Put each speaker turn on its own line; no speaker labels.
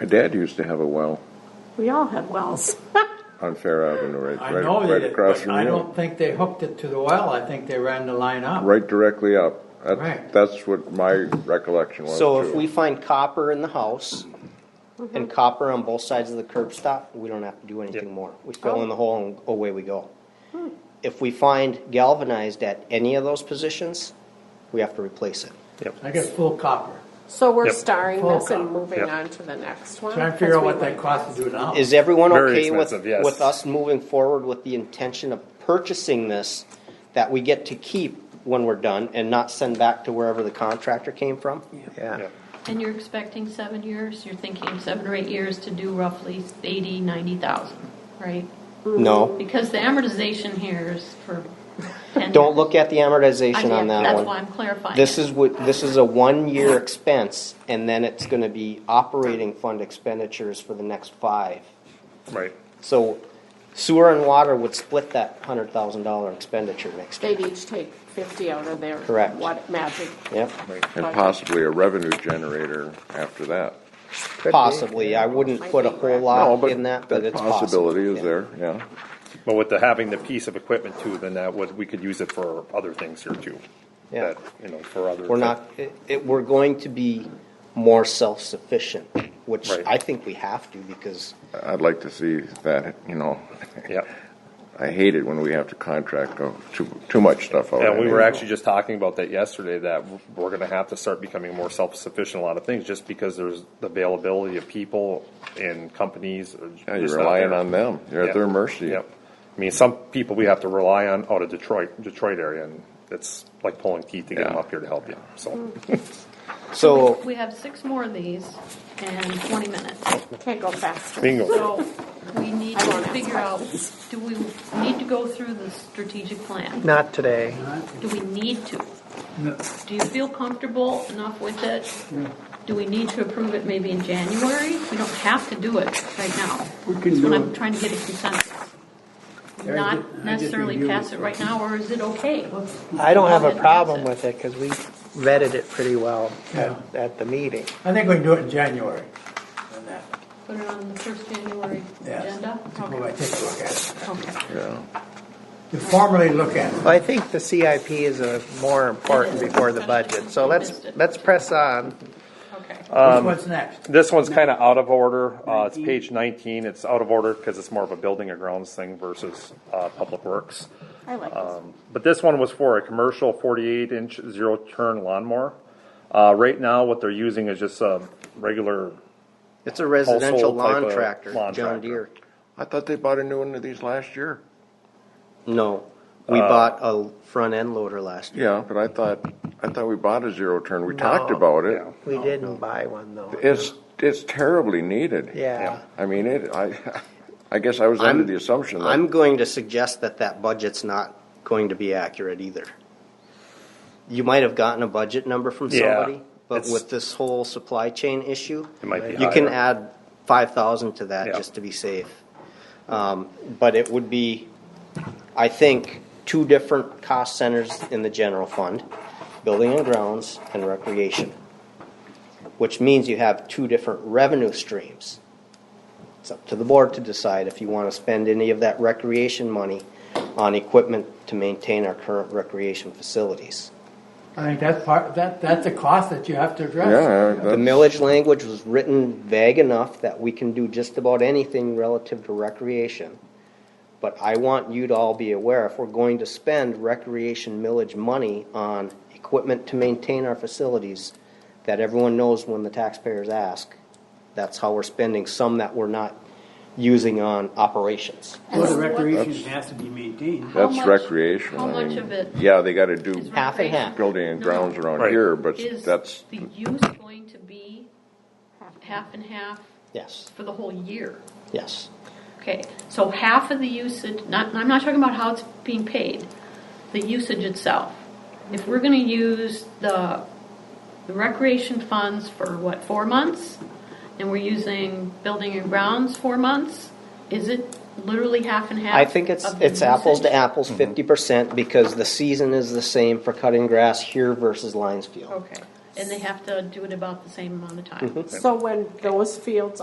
My dad used to have a well
We all had wells.
on Fair Avenue, right,
I
right,
know
right
that,
across
but
from
I
you.
don't think they hooked it to the well, I think they ran the line up.
Right directly up. That's,
Right.
that's what my recollection was.
So if
too.
we find copper in the house
Mm-hmm.
and copper on both sides of the curb stop, we don't have to do anything more. We
Oh.
fill in the hole and away we go.
Hmm.
If we find galvanized at any of those positions, we have to replace it.
I got full copper.
So we're
Yep.
starring
Full
this and
cop.
moving
Yep.
on to the next one.
Trying to figure out
because
what
we
that
went-
costs to do now.
Is everyone
Very
okay with,
expensive, yes.
with us moving forward with the intention of purchasing this that we get to keep when we're done and not send back to wherever the contractor came from?
Yeah.
Yeah.
And you're expecting seven years, you're thinking seven or eight years to do roughly eighty, ninety thousand, right?
No.
Because the amortization here is for ten
Don't
years.
look at the
I
amortization
did,
on that one.
That's why I'm clarifying.
This
it.
is what, this is a one-year expense, and then it's gonna be operating fund expenditures for the next five.
Right.
So sewer and water would split that hundred thousand dollar expenditure next year.
They'd each take fifty out of their.
Correct.
What magic.
Yep,
And possibly a revenue generator after that.
possibly. I wouldn't put a whole
No,
lot
but
Ah, in that, but it's possible.
Possibility is
Yeah.
there, yeah.
But with the, having the piece of equipment too, then that would, we could use it for other things here too.
Yeah.
That, You know, for other.
We're not, it, it, we're going to be more self-sufficient, which
Right.
I think we have to, because
I'd like to see that, you know,
Yeah.
I hate it when we have to contract uh, too, too much stuff
Oh,
out.
And we were actually just talking about that yesterday, that we're gonna have to start becoming more self-sufficient in a lot of things, just because there's the availability of people and companies. are
Yeah, you're
just not
relying
there.
on them, you're
Yeah.
at their mercy.
Yep. I mean, some people we have to rely on out of Detroit, Detroit area, and it's like pulling teeth to get them
Yeah.
up here to help you, so.
Hmm. So,
We have six more of these and twenty minutes.
Can't go faster.
Bingo.
So we need
I
to
won't ask
figure out, do we need to go through the strategic plan?
Not today.
Do we need to? Do you feel comfortable enough with it? Do we need to approve it maybe in January? We don't have to do it right now.
We can
That's what
do
I'm
it.
trying to get a consensus.
I ju- I
Not
just
necessarily
reviewed
pass
it.
it right now, or is it okay?
I don't have a
Well,
problem
that's
with it because we vetted it pretty well
Yeah.
at, at the meeting.
I think we can do it in January. and that.
Put it on the first January
Yes.
agenda?
Take a look- Take a look at it.
Okay.
Yeah.
To formally look at it.
Well, I think the CIP is a more important before the budget, so let's, let's press on.
Okay.
What's-
Um,
What's next?
This one's kind of out of order. Uh, it's page 19. It's out of order because it's more of a building and grounds thing versus uh, public works.
I like this.
But this one was for a commercial 48 inch zero turn lawnmower. Uh, right now, what they're using is just a regular.
it's a residential
Household type
lawn
of
tractor,
lawn
John
tractor.
Deere.
I thought they bought a new one of these last year.
No, we
Uh,
bought a front end loader last year.
Yeah, but I thought, I thought we bought a zero turn, we talked
No.
about it.
We didn't buy one though.
It's, it's terribly needed.
Yeah.
I mean, it, I, I guess I was under
I'm-
the assumption that.
I'm going to suggest that that budget's not going to be accurate either. You might have gotten a budget number from
Yeah,
somebody, but
it's-
with this whole supply chain issue,
It might be
you can
higher.
add five thousand to that
Yeah.
just to be safe. Um, but it would be, I think, two different cost centers in the general fund, building and grounds and recreation. Which means you have two different revenue streams. It's up to the board to decide if you want to spend any of that recreation money on equipment to maintain our current recreation facilities.
I think that's part, that, that's a cost that you have to address.
Yeah,
The
that's-
millage language was written vague enough that we can do just about anything relative to recreation. But I want you to all be aware, if we're going to spend recreation millage money on equipment to maintain our facilities, that everyone knows when the taxpayers ask, that's how we're spending some that we're not using on operations.
Well, the recreation has to be maintained.
How
that's
much-
recreational.
how
I
much
mean,
of it
Yeah, they gotta
Is
do
Half and half.
building and
No.
grounds around
Right.
here, but
Is
that's,
the use going to be half and half
Yes,
for the whole year?
yes.
Okay, so half of the usage, not, I'm not talking about how it's being paid, the usage itself. If we're gonna use the, the recreation funds for what, four months? And we're using building and grounds four months, is it literally half and half?
I think it's,
of the
it's apples to
usage?
apples, fifty percent, because the season is the same for cutting grass here versus Lions Field. Mm-hmm.
Okay, and they have to do it about the same amount of time?
So when those fields